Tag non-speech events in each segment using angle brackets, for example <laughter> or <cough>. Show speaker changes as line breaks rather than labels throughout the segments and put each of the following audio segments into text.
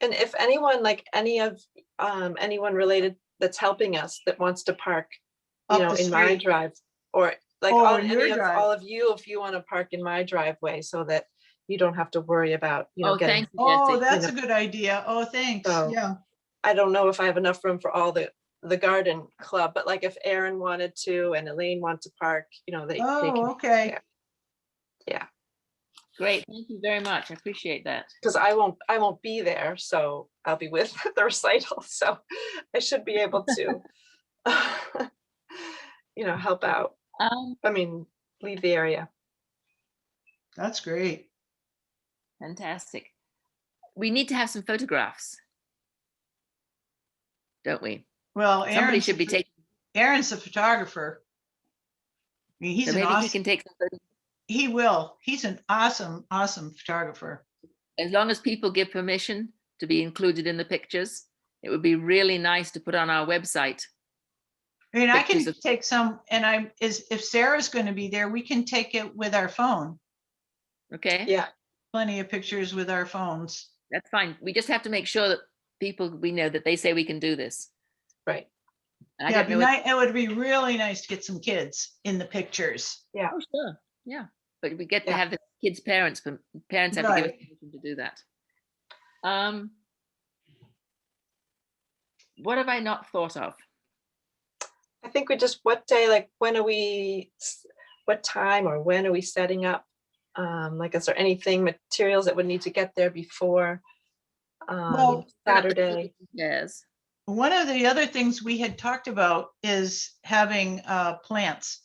and if anyone, like any of, um, anyone related that's helping us that wants to park, you
Up
know,
the
in my
street.
drive, or like
Oh,
all,
in your
any of,
drive.
all of you, if you want to park in my driveway so that you don't have to worry about, you know,
Oh,
getting,
thank you,
Oh,
Jesse.
that's a good idea. Oh, thanks.
So-
Yeah.
I don't know if I have enough room for all the, the garden club, but like if Aaron wanted to and Elaine want to park, you know, they, they
Oh,
can,
okay.
Great, thank you very much. I appreciate that.
because I won't, I won't be there, so I'll be with <laughs> the recital, so I should be able to, <laughs> you know, help out.
Um,
I mean, leave the area.
That's great.
fantastic. We need to have some photographs. Don't we?
Well,
Somebody
Aaron's,
should be taking,
Aaron's a photographer. I mean, He's
so
an
maybe he
awesome,
can take, some photos.
he will. He's an awesome, awesome photographer.
as long as people give permission to be included in the pictures. It would be really nice to put on our website.
I mean, I can
Pictures of-
take some, and I'm, is, if Sarah's going to be there, we can take it with our phone.
Okay,
Yeah,
Plenty of pictures with our phones.
that's fine. We just have to make sure that people, we know that they say we can do this.
right.
And I
Yeah,
don't
it'd be
know. if-
ni- it would be really nice to get some kids in the pictures.
Oh, sure. Yeah, but we get to
Yeah.
have the kids' parents, but parents have to give us permission to do that. Um, what have I not thought of?
I think we just, what day, like, when are we, s- what time or when are we setting up? Um, like, is there anything, materials that would need to get there before? Um,
Well-
Saturday,
Yes.
One of the other things we had talked about is having uh, plants.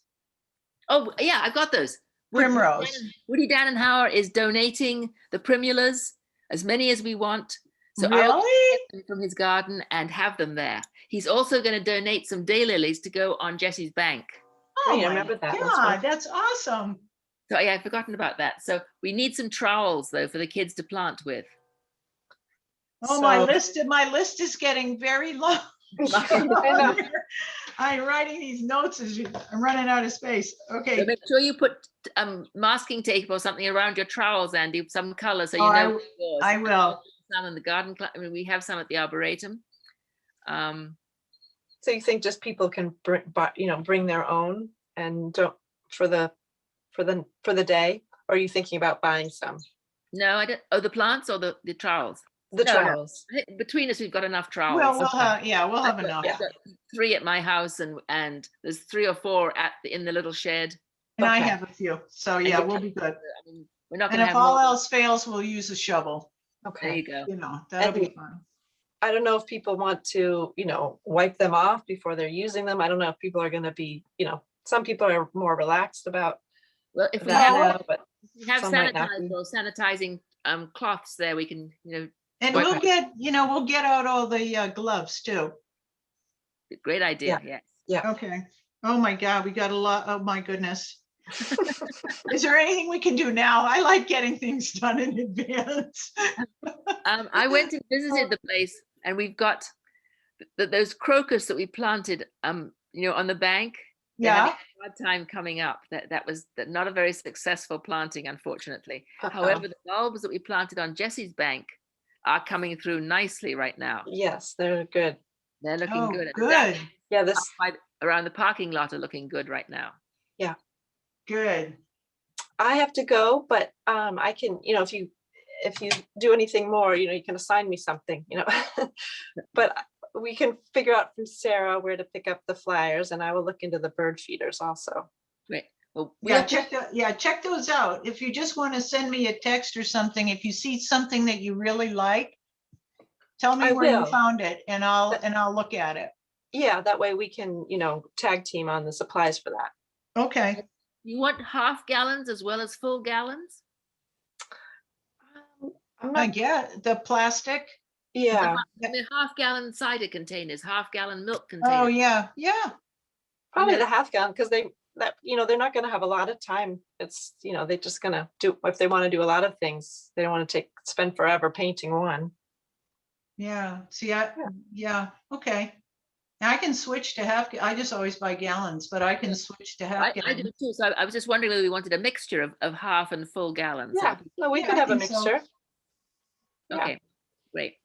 Oh, yeah, I've got those. Woody Dan-
Primrose.
Woody Dannenhauer is donating the primulas, as many as we want. So I will
Really?
get them from his garden and have them there. He's also going to donate some daylilies to go on Jesse's bank.
Yeah, I
Oh, my
remember that. That's
God,
wonderful.
that's awesome.
So yeah, I've forgotten about that. So we need some trowels though for the kids to plant with.
Oh, my
So-
list, my list is getting very <laughs> long.
Um, <laughs> I know.
I'm writing these notes as you, I'm running out of space.
So
Okay.
make sure you put um masking tape or something around your trowels, Andy, some color, so you
Oh, I
know.
w-
it's yours.
I will.
Some in the garden, cl- I mean, we have some at the arboretum. Um,
So you think just people can bring, but, you know, bring their own and don't, for the, for the, for the day? Or are you thinking about buying some?
no, I don't, oh, the plants or the, the trowels?
The
No.
trowels.
I think Between us, we've got enough trowels.
Well, uh we'll have, yeah, we'll have enough.
I've got Three at my house and, and there's three or four at, the in the little shed.
And I
Okay.
have a few. So
and
yeah,
you
we'll
can-
be good.
I mean, We're not
And
gonna have
if all
more,
else fails, we'll use a shovel,
there
Okay.
you go.
you know, that'll
And
be fun.
I don't know if people want to, you know, wipe them off before they're using them. I don't know if people are gonna be, you know, some people are more relaxed about
Well, if we
that
have,
now, but
if we have
some might not be.
sanitizer or sanitizing um cloths there, we can, you know,
And
Right.
we'll get, you know, we'll get out all the uh, gloves too.
great idea, yes.
Okay. Oh my God, we got a lot. Oh my goodness. <laughs> Is there anything we can do now? I like getting things done in advance. <laughs>
Um, I went and visited the place, and we've got th- th- those crocus that we planted, um, you know, on the bank. they're having
Yeah,
a Hard time coming up. That that was th- not a very successful planting, unfortunately.
uh-oh.
<laughs>
However, the bulbs that we planted on Jesse's bank are coming through nicely right now.
yes, they're good.
They're looking
Oh,
good. and the
good,
daffodils
Yeah, this,
outside Around the parking lot are looking good right now.
good.
I have to go, but um, I can, you know, if you, if you do anything more, you know, you can assign me something, you know. <laughs> But I- we can figure out from Sarah where to pick up the flyers and I will look into the bird feeders also.
Well, we
Yeah, check, tho- yeah, check those out. If you just want to send me a text or something, if you see something that you really like, tell me
I
where you
will.
found it and I'll,
That-
and I'll look at it.
Yeah, that way we can, you know, tag team on the supplies for that.
Okay,
you want half gallons as well as full gallons?
Um, I'm
I
not,
get the plastic.
yeah,
I mean, half gallon cider containers, half gallon milk containers.
Oh, yeah, yeah.
probably
yeah.
the half gallon, because they, that, you know, they're not gonna have a lot of time. It's, you know, they're just gonna do, if they want to do a lot of things, they don't want to take, spend forever painting one.
Yeah, see, I, yeah, okay. And I can switch to half, ga- I just always buy gallons, but I can switch to half
I, I do
gallon.
too. So I I was just wondering whether we wanted a mixture of, of half and full gallons. That
Yeah,
would be-
no, we
Yeah,
could
I
have a
think so.
mixture. yeah.
Okay, great.